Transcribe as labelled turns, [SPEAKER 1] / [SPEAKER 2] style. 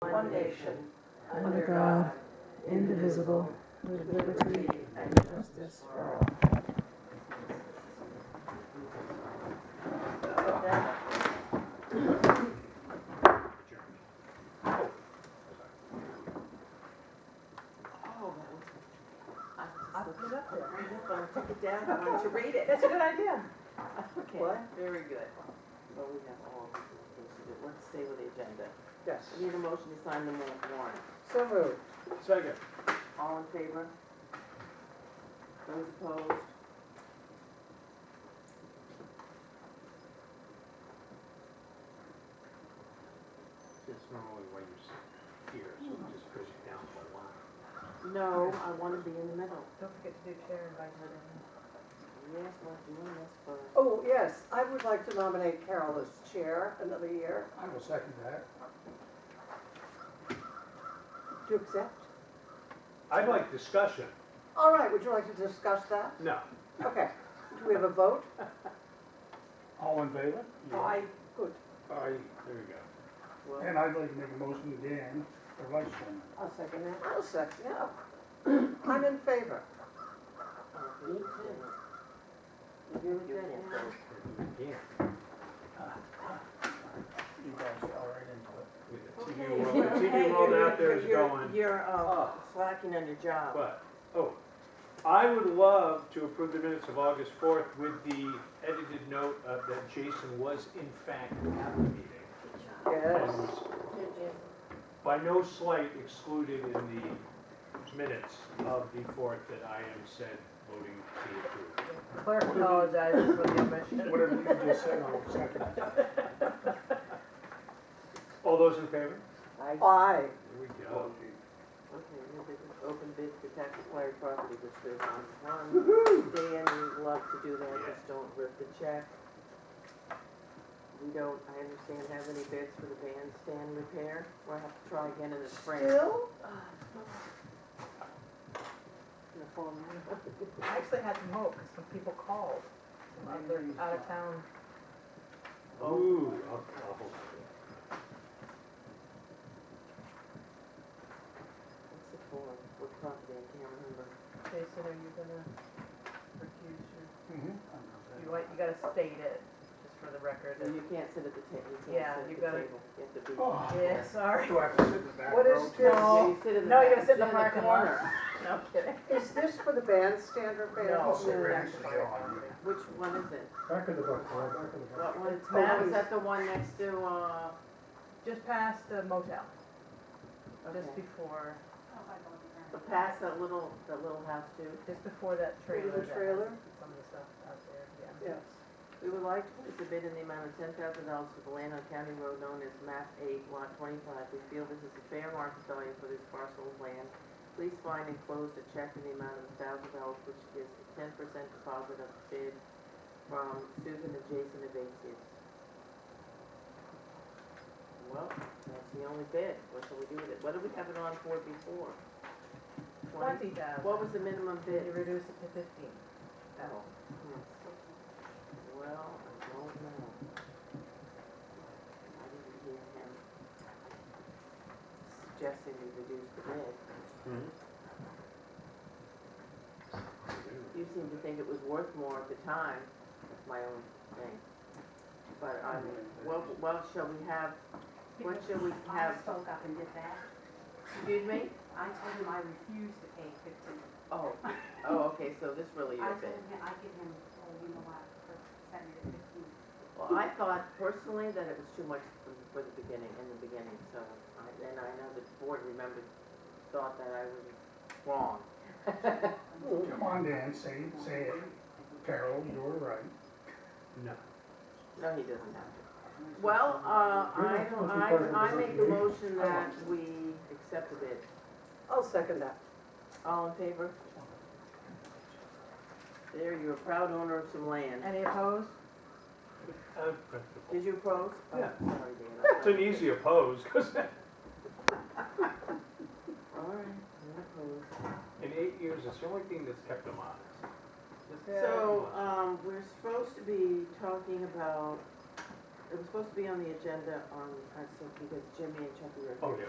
[SPEAKER 1] one nation, under God, indivisible, with liberty and justice for all.
[SPEAKER 2] Oh,
[SPEAKER 1] I
[SPEAKER 2] I was
[SPEAKER 1] put it up there.
[SPEAKER 2] just going to take it down, I wanted to read it.
[SPEAKER 1] That's a good idea.
[SPEAKER 2] Okay,
[SPEAKER 1] What?
[SPEAKER 2] Very good. Well, we have all these things to do. Let's stay with the agenda.
[SPEAKER 1] Yes.
[SPEAKER 2] We Need a motion to sign the wa- warrant.
[SPEAKER 1] So moved.
[SPEAKER 3] Second.
[SPEAKER 2] All in favor? Those opposed?
[SPEAKER 3] It's normally why you're s- here, so it just push it down for a while.
[SPEAKER 2] No, I want to be in the middle.
[SPEAKER 4] Don't forget to do chair and vice chair.
[SPEAKER 2] Yes, we're doing this first.
[SPEAKER 1] Oh, yes, I would like to nominate Carol as chair another year.
[SPEAKER 3] I will second that.
[SPEAKER 1] Do you accept?
[SPEAKER 3] I'd like discussion.
[SPEAKER 1] All right, would you like to discuss that?
[SPEAKER 3] No.
[SPEAKER 1] Okay, do we have a vote?
[SPEAKER 5] All in favor?
[SPEAKER 2] I,
[SPEAKER 1] Good.
[SPEAKER 3] Aye, there you go.
[SPEAKER 2] well,
[SPEAKER 5] And I'd like to make a motion to Dan for vice chairman.
[SPEAKER 2] I'll second that.
[SPEAKER 1] I'll second, yeah. I'm in favor.
[SPEAKER 2] Oh, Me too. You agree with that, Ann?
[SPEAKER 3] Again.
[SPEAKER 5] You guys fell right into it.
[SPEAKER 3] With
[SPEAKER 2] Okay,
[SPEAKER 3] the TV world, the TV
[SPEAKER 2] hey,
[SPEAKER 3] world
[SPEAKER 2] you're-
[SPEAKER 3] out there is
[SPEAKER 2] you're-
[SPEAKER 3] going,
[SPEAKER 2] You're, uh,
[SPEAKER 3] up.
[SPEAKER 2] slacking on your job.
[SPEAKER 3] but, oh, I would love to approve the minutes of August fourth with the edited note of that Jason was in fact at the meeting.
[SPEAKER 1] Yes.
[SPEAKER 3] And was by no slight excluded in the minutes of the fourth that I am said voting to approve.
[SPEAKER 4] Clerk apologizes for the omission.
[SPEAKER 5] Whatever you just said, I'll second it.
[SPEAKER 3] All those in favor?
[SPEAKER 2] I, okay,
[SPEAKER 1] Aye.
[SPEAKER 3] There we go.
[SPEAKER 2] new business, open bid for tax acquired property, which there's on one.
[SPEAKER 1] Woo-hoo.
[SPEAKER 2] Dan, we love to do that,
[SPEAKER 3] Yeah.
[SPEAKER 2] just don't rip the check. We don't, I understand, have any bids for the bandstand repair. We'll have to try again in the spring.
[SPEAKER 1] Still?
[SPEAKER 2] In the fall, no.
[SPEAKER 4] I actually had some hope, 'cause some people called, and they're out of town.
[SPEAKER 3] Ooh, I'll, I'll hold
[SPEAKER 2] What's it for? What property? I can't remember.
[SPEAKER 4] Jason, are you gonna recuse your,
[SPEAKER 1] Mm-hmm.
[SPEAKER 5] Mhm.
[SPEAKER 4] you want, you gotta state it, just for the record.
[SPEAKER 2] You can't sit at the table, you
[SPEAKER 4] Yeah,
[SPEAKER 2] can't
[SPEAKER 4] you
[SPEAKER 2] sit at the
[SPEAKER 4] gotta-
[SPEAKER 2] table. You have to be.
[SPEAKER 5] Oh,
[SPEAKER 4] Yeah, sorry.
[SPEAKER 5] Do I have to sit in the back
[SPEAKER 1] What
[SPEAKER 5] row?
[SPEAKER 1] is
[SPEAKER 5] too?
[SPEAKER 1] this?
[SPEAKER 2] Yeah,
[SPEAKER 4] No.
[SPEAKER 2] you sit in the
[SPEAKER 4] No, you
[SPEAKER 2] back-
[SPEAKER 4] gotta sit in the back
[SPEAKER 2] corner.
[SPEAKER 4] No kidding.
[SPEAKER 1] Is this for the bandstand repair?
[SPEAKER 4] No.
[SPEAKER 5] I'll sit right next to Joe on you.
[SPEAKER 2] Which one is it?
[SPEAKER 5] Back of the book, right, back of the book.
[SPEAKER 2] What one?
[SPEAKER 4] It's
[SPEAKER 2] Oh,
[SPEAKER 4] Matt's.
[SPEAKER 2] is that the one next to, uh,
[SPEAKER 4] Just past the motel, just
[SPEAKER 2] okay.
[SPEAKER 4] before,
[SPEAKER 2] past that little, that little house too?
[SPEAKER 4] just before that trailer. that has
[SPEAKER 1] trailer?
[SPEAKER 4] Some of the stuff out there, yeah.
[SPEAKER 1] Yes.
[SPEAKER 2] We would like to place a bid in the amount of ten thousand dollars for the land on County Road known as map eight, lot twenty-five. We feel this is a fair market value for this parcel of land. Please find enclosed a check in the amount of thousand dollars, which is a ten percent deposit of bid from Susan and Jason Evasius. Well, that's the only bid. What shall we do with it? What did we have it on for before? Twenty?
[SPEAKER 4] Twenty thousand.
[SPEAKER 2] What was the minimum bid?
[SPEAKER 4] You reduce it to fifteen.
[SPEAKER 2] Oh. Well, I don't know. I didn't hear him suggesting we reduce the bid.
[SPEAKER 3] Mm-hmm.
[SPEAKER 2] You seemed to think it was worth more at the time, that's my own thing. But I mean, what, what shall we have, what shall we
[SPEAKER 6] I
[SPEAKER 2] have,
[SPEAKER 6] spoke up and did that.
[SPEAKER 2] excuse me?
[SPEAKER 6] I told him I refused to pay fifteen.
[SPEAKER 2] Oh, oh, okay, so this really
[SPEAKER 6] I
[SPEAKER 2] is
[SPEAKER 6] told
[SPEAKER 2] it.
[SPEAKER 6] him, I give him, well, you know what, for sending it fifteen.
[SPEAKER 2] Well, I thought personally that it was too much for the- for the beginning, in the beginning, so, I- and I know the board remembered, thought that I was wrong.
[SPEAKER 5] Come on, Dan, say, say it. Carol, you were right.
[SPEAKER 3] No.
[SPEAKER 2] No, he doesn't have to. Well, uh, I, I, I make the motion that we accept the bid.
[SPEAKER 1] I'll second that.
[SPEAKER 2] All in favor? There, you're a proud owner of some land.
[SPEAKER 4] Any opposed?
[SPEAKER 3] I'm
[SPEAKER 2] Did
[SPEAKER 3] comfortable.
[SPEAKER 2] you oppose? Oh,
[SPEAKER 3] Yeah.
[SPEAKER 2] Sorry, Dan.
[SPEAKER 3] It's an easy oppose, because
[SPEAKER 2] All right, I'm opposed.
[SPEAKER 3] in eight years, it's the only thing that's kept them honest.
[SPEAKER 2] So, um, we're supposed to be talking about, it was supposed to be on the agenda on, I think, because Jimmy and Chucky were.
[SPEAKER 3] Oh, yeah.